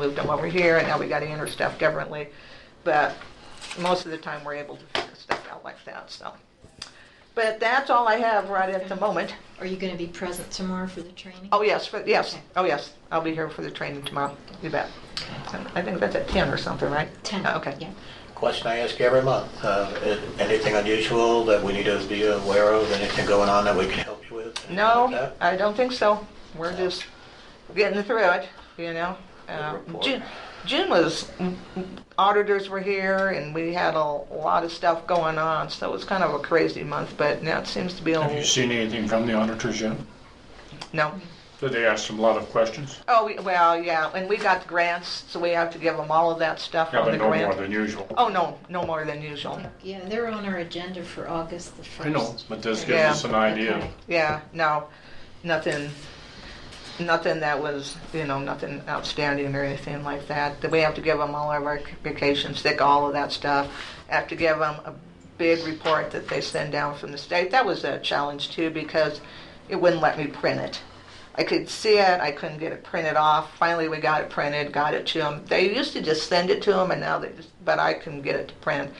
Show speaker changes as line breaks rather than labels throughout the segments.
moved them over here, and now we gotta enter stuff differently. But most of the time, we're able to figure stuff out like that, so. But that's all I have right at the moment.
Are you going to be present tomorrow for the training?
Oh, yes, for, yes,
Okay.
oh, yes, I'll be here for the training tomorrow, you bet. I think that's at ten or something, right?
10.
Oh, Okay.
Yeah.
Question I ask every month, uh, i- anything unusual that we need to be aware of, anything going on that we can help you with? anything like
No,
that?
I don't think so. We're
No.
just getting through it, you know. Uh,
report.
June, June was, auditors were here and we had a lot of stuff going on, so it was kind of a crazy month, but now it seems to be
Have you
a,
seen anything from the auditors yet?
no.
Did they ask them a lot of questions?
Oh, we- well, yeah, and we got grants, so we have to give them all of that stuff
Yeah,
on
but
the
no more
grant.
than usual.
Oh, no, no more than usual.
Yeah, they're on our agenda for August the 1st.
I know, but this gives
Yeah.
us an idea.
Okay.
Yeah, no, nothing, nothing that was, you know, nothing outstanding or anything like that. That We have to give them all of our vacation sick, all of that stuff. Have to give them a big report that they send down from the state. That was a challenge too because it wouldn't let me print it. I could see it, I couldn't get it printed off. Finally, we got it printed, got it to them. They used to just send it to them and now they just, but I can get it to print.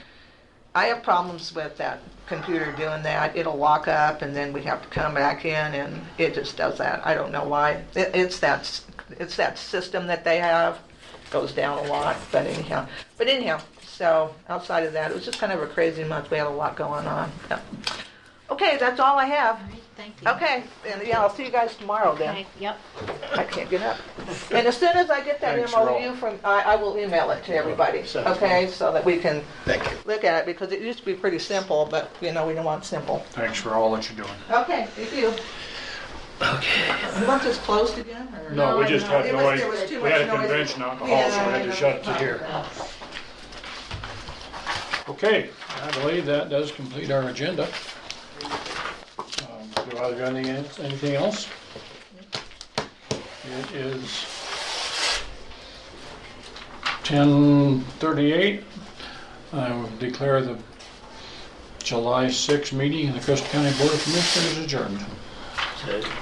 I have problems with that computer doing that. It'll lock up and then we have to come back in and it just does that. I don't know why. It, it's that s- it's that system that they have goes down a lot, but anyhow. But anyhow, so outside of that, it was just kind of a crazy month. We had a lot going on. Yeah. Okay, that's all I have.
All right, thank you.
Okay, and yeah, I'll see you guys tomorrow then.
Okay, Yep.
I can't get up. And as soon as I get that
Thanks,
MOU
Rob.
from, I, I will email it to everybody,
Sounds good.
okay? So that we can
Thank you.
look at it because it used to be pretty simple, but you know, we don't want simple.
Thanks for all that you're doing.
Okay, thank you. Okay. You want this closed again or?
No, we just had
It
to
was- there was
wait.
too
We had
much
a
noise.
convention out in the hall, so we had to shut it to here. Okay, I believe that does complete our agenda. Um, Do I have anything, else- anything else? It is 10:38. I will declare the July 6 meeting of the Custer County Board of Commissioners adjourned.
That's it.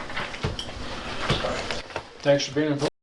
Sorry.
Thanks for being involved.